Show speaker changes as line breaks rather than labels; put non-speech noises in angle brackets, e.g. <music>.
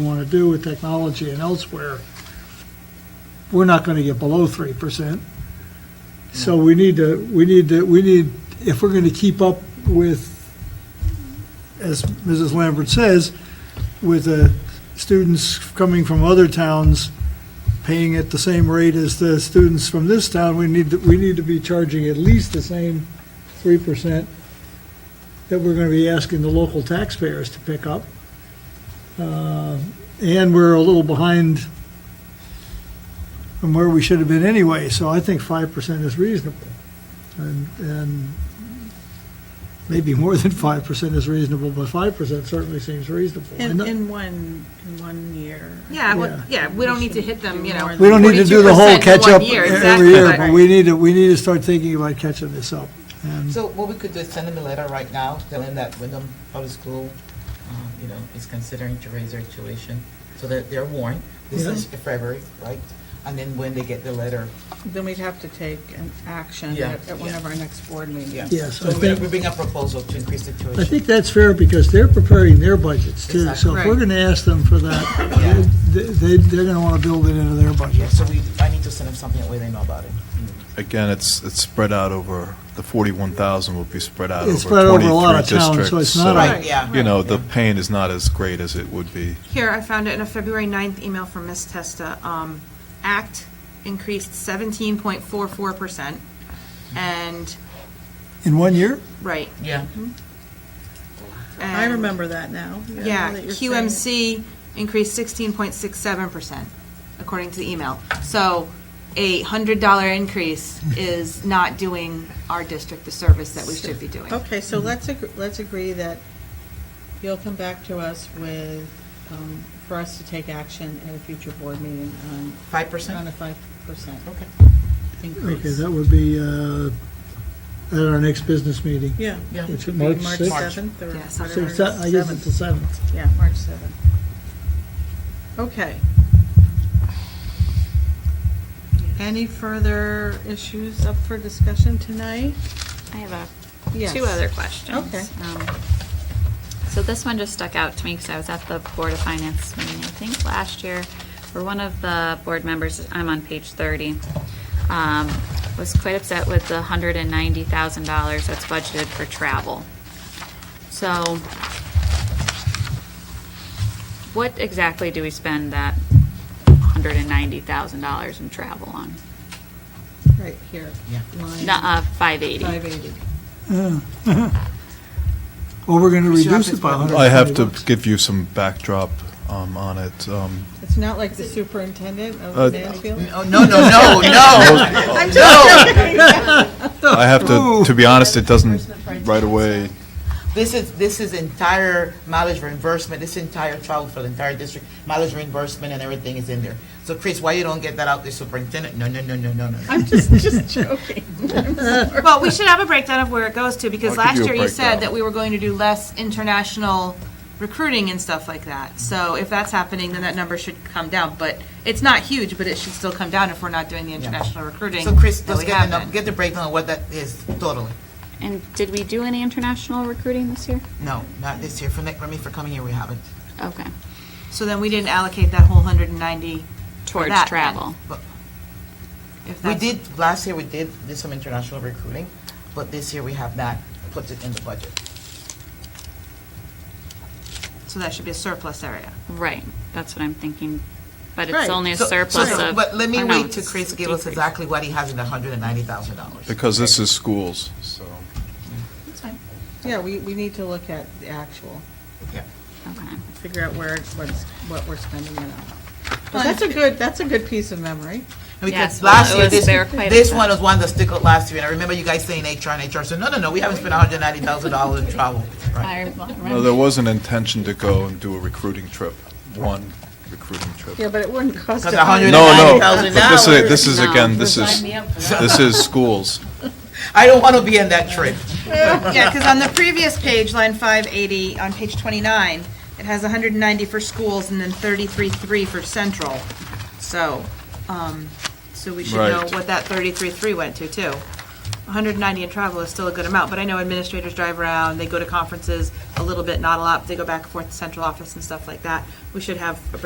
want to do with technology and elsewhere, we're not going to get below 3%. So we need to, we need to, we need, if we're going to keep up with, as Mrs. Lambert says, with the students coming from other towns paying at the same rate as the students from this town, we need, to we need to be charging at least the same 3% that we're going to be asking the local taxpayers to pick up. Uh, And we're a little behind from where we should have been anyway, so I think 5% is reasonable. And, and maybe more than <laughs> 5% is reasonable, but 5% certainly seems reasonable.
In,
And-
in one, in one year.
Yeah, well,
Yeah.
yeah, we don't need to hit them, you know.
We don't need to do the whole
42% in one
catch-up
year,
every
exactly,
year, but we need to, we need to start thinking about catching this up. And
So what we could do is send them a letter right now, telling that Wyndham Public School, um, you know, is considering to raise their tuition, so that they're warned. This is February, right? And then when they get the letter,
Then we'd have to take an action
Yeah.
at, at one of our next board
yeah.
meetings.
Yes, I
So we
think-
we bring a proposal to increase the tuition.
I think that's fair because they're preparing their budgets too. So if
Exactly.
we're going to ask them for that,
Yeah.
they, they- they're going to want to build it into their
Yeah,
budget.
so we, I need to send them something that way they know about it.
Again, it's, it's spread out over, the 41,000 will be spread out over 23
It's
districts.
spread over a lot of towns, so it's not
a- Right, yeah.
You know, the
Yeah.
pain is not as great as it would be.
Here, I found it in a February 9th email from Ms. Testa. Um, Act increased 17.44%. And,
In one year?
right.
Yeah.
I
and-
remember that now.
Yeah,
now that you're saying it.
QMC increased 16.67%, according to the email. So a $100 increase is not doing our district the service that we should be doing.
Okay, so
Mm-hmm.
let's, ag- let's agree that you'll come back to us with, um, for us to take action at a future board meeting on,
Five
on
percent?
a five percent
Okay.
Okay,
increase.
that would be uh, at our next business meeting.
Yeah.
Yeah.
Which is
Be
March
March
6th.
seventh or
Yeah, something
So
whatever.
it's that- I guess it's the
Seventh.
7th.
Yeah, March seventh. Okay. Any further issues up for discussion tonight?
I have a,
Yes.
two other questions.
Okay.
Um, So this one just stuck out to me because I was at the Board of Finance meeting, I think, last year, where one of the board members, I'm on page 30, um, was quite upset with the $190,000 that's budgeted for travel. So what exactly do we spend that $190,000 in travel on? uh,
Right here.
Yeah.
Line
Nuh-uh, 580.
Five eighty.
Well, we're going to
Mr.
reduce
Hopkins,
it by
what-
100
I have to give you some backdrop um, on it. Um,
It's not like the superintendent
Uh,
of Mansfield?
<laughs> Oh, no, no, no, <laughs> no, no.
I have to, to be honest, it doesn't right away,
This is, this is entire mileage reimbursement, this entire travel for the entire district, mileage reimbursement and everything is in there. So Chris, why you don't get that out to superintendent? No, no, no, no, no, no.
I'm just, just joking.
Well, we should have a breakdown of where it goes to, because
I'll give
last
you a
year you said
breakdown.
that we were going to do less international recruiting and stuff like that. So if that's happening, then that number should come down, but it's not huge, but it should still come down if we're not doing the international recruiting.
So Chris,
that
let's
we
get the,
haven't.
nu- get the breakdown of what that is totally.
And did we do any international recruiting this year?
No, not this year. For next, I mean, for coming year, we haven't.
Okay,
So then we didn't allocate that whole hundred and ninety,
towards
that,
travel.
if
We
that's.
did, last year we did, did some international recruiting, but this year we have not put it in the budget.
So that should be a surplus area.
Right, that's what I'm thinking, but it's
Right.
only a
So- so-
surplus
so-
of.
But let me
or no,
wait till
it's
Chris
a
give us
decrease.
exactly what he has in the hundred and ninety thousand dollars.
because this is schools, so.
<laughs> Yeah, we, we need to look at the actual,
Okay.
figure out where, it's- what's, what we're spending it on. But that's a good, that's a good piece of memory.
Because
Yes, well,
last
it
year,
was-
this,
they were quite
this
upset.
one was one that stickled last year, and I remember you guys saying HR and HR, so no, no, no, we haven't spent hundred and ninety thousand dollars in travel. Right.
I
No,
remember.
there was an intention to go and do a recruiting trip, one recruiting trip.
Yeah, but it wouldn't cost. us
Because a hundred and
No,
ninety
no,
thousand
but this is,
dollars.
this is, again, this is, this is schools.
I don't want to be in that trip.
<laughs> Yeah, because on the previous page, line five eighty, on page twenty-nine, it has hundred and ninety for schools and then thirty-three, three for central. So, um, so we should know
Right.
what that thirty-three, three went to, too. 190 in travel is still a good amount, but I know administrators drive around, they go to conferences a little bit, not a lot, they go back and forth to central office and stuff like that. We should have a